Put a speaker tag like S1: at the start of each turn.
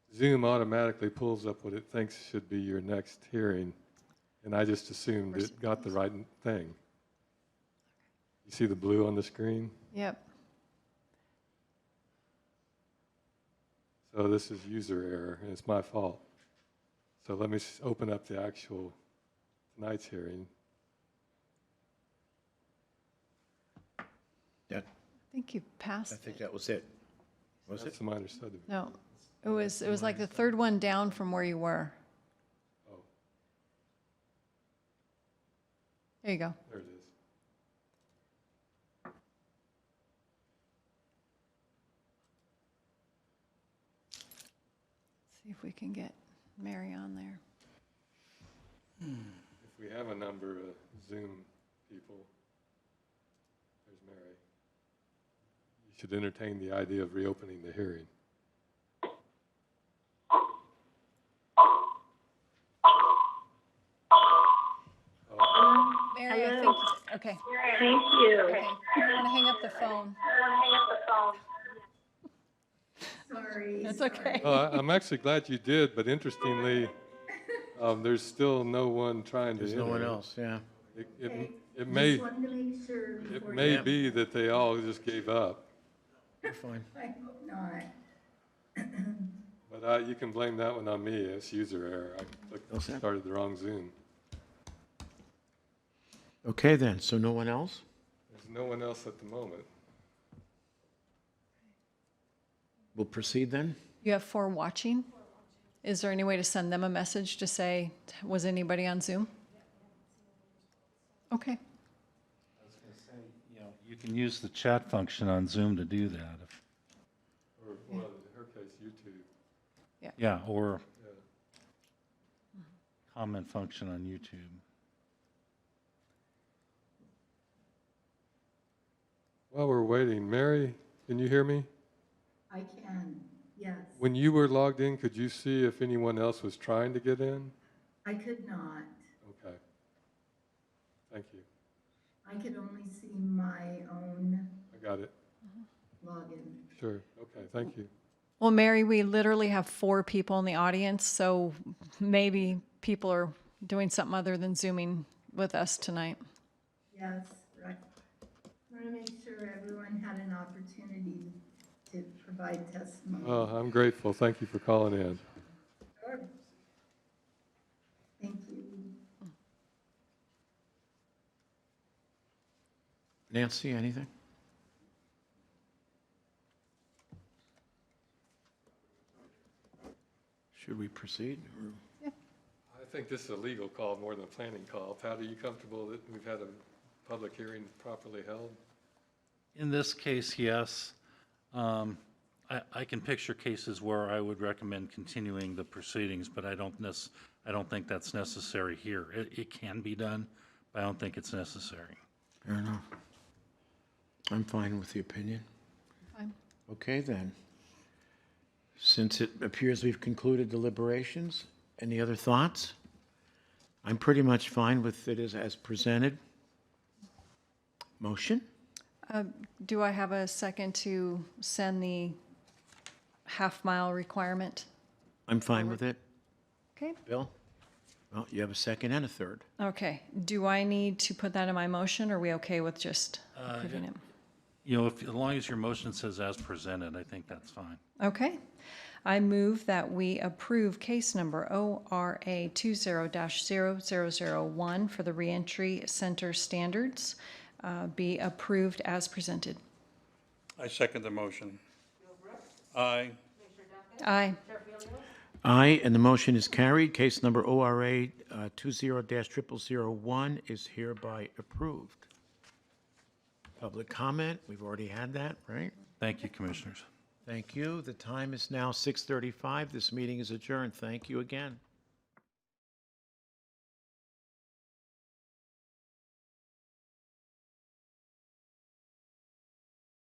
S1: Zoom automatically pulls up what it thinks should be your next hearing, and I just assumed it got the right thing. You see the blue on the screen?
S2: Yep.
S1: So this is user error, and it's my fault. So let me s- open up the actual tonight's hearing.
S3: That,
S2: I think you
S3: I
S2: passed
S3: think
S2: it.
S3: that was it. Was it?
S1: That's a minor subdivision.
S2: No, it was, it was like the third one down from where you were.
S1: Oh.
S2: There you go.
S1: There it is.
S2: See if we can get Mary on there.
S1: If we have a number of Zoom people, there's Mary. You should entertain the idea of reopening the hearing.
S2: Mary, I think, okay,
S4: Thank you.
S2: okay. You want to hang up the phone? That's okay.
S1: Oh, I- I'm actually glad you did, but interestingly, um, there's still no one trying to
S3: There's no one
S1: enter.
S3: else, yeah.
S1: It- It, it may,
S5: Just wanted to make sure
S1: it
S5: before.
S1: may
S3: Yeah.
S1: be that they all just gave up,
S3: We're fine.
S5: I hope not.
S1: but I, you can blame that one on me, it's user error. I clicked-
S3: Okay.
S1: started the wrong Zoom.
S3: Okay, then, so no one else?
S1: There's no one else at the moment.
S3: We'll proceed then?
S2: You have four watching? Is there any way to send them a message to say, was anybody on Zoom? Okay,
S6: You know, You can use the chat function on Zoom to do that. if-
S1: Or, well, in her case, YouTube.
S6: Yeah, or
S1: Yeah.
S6: comment function on YouTube.
S1: While we're waiting, Mary, can you hear me?
S5: I can, yes.
S1: When you were logged in, could you see if anyone else was trying to get in?
S5: I could not.
S1: Okay. Thank you.
S5: I could only see my own
S1: I got it.
S5: login.
S1: Sure. Okay, thank you.
S2: Well, Mary, we literally have four people in the audience, so maybe people are doing something other than Zooming with us tonight.
S5: Yes, right. Want to make sure everyone had an opportunity to provide testimony.
S1: Oh, I'm grateful. Thank you for calling in.
S5: Sure. Thank you.
S3: Nancy, anything? Should we proceed? or-
S1: I think this is a legal call more than a planning call. Pat, are you comfortable that we've had a public hearing properly held?
S6: In this case, yes. Um, I, I can picture cases where I would recommend continuing the proceedings, but I don't nec, I don't think that's necessary here. It, it can be done, but I don't think it's necessary.
S3: Fair enough. I'm fine with the opinion.
S2: Fine.
S3: Okay, then. Since it appears we've concluded deliberations, any other thoughts? I'm pretty much fine with it as, as presented. Motion?
S2: Do I have a second to send the half-mile requirement?
S3: I'm fine with it.
S2: Okay,
S3: Bill? Well, you have a second and a third.
S2: okay. Do I need to put that in my motion, or are we okay with just approving it?
S6: You know, if, as long as your motion says as presented, I think that's fine.
S2: Okay. I move that we approve case number ORA 20-0001 for the reentry center standards uh, be approved as presented.
S7: I second the motion. Aye.
S2: Aye.
S3: Aye, and the motion is carried. Case number ORA uh, 20-0001 is hereby approved. Public comment, we've already had that, right?
S6: Thank you, commissioners.
S3: Thank you. The time is now 6:35. This meeting is adjourned. Thank you again.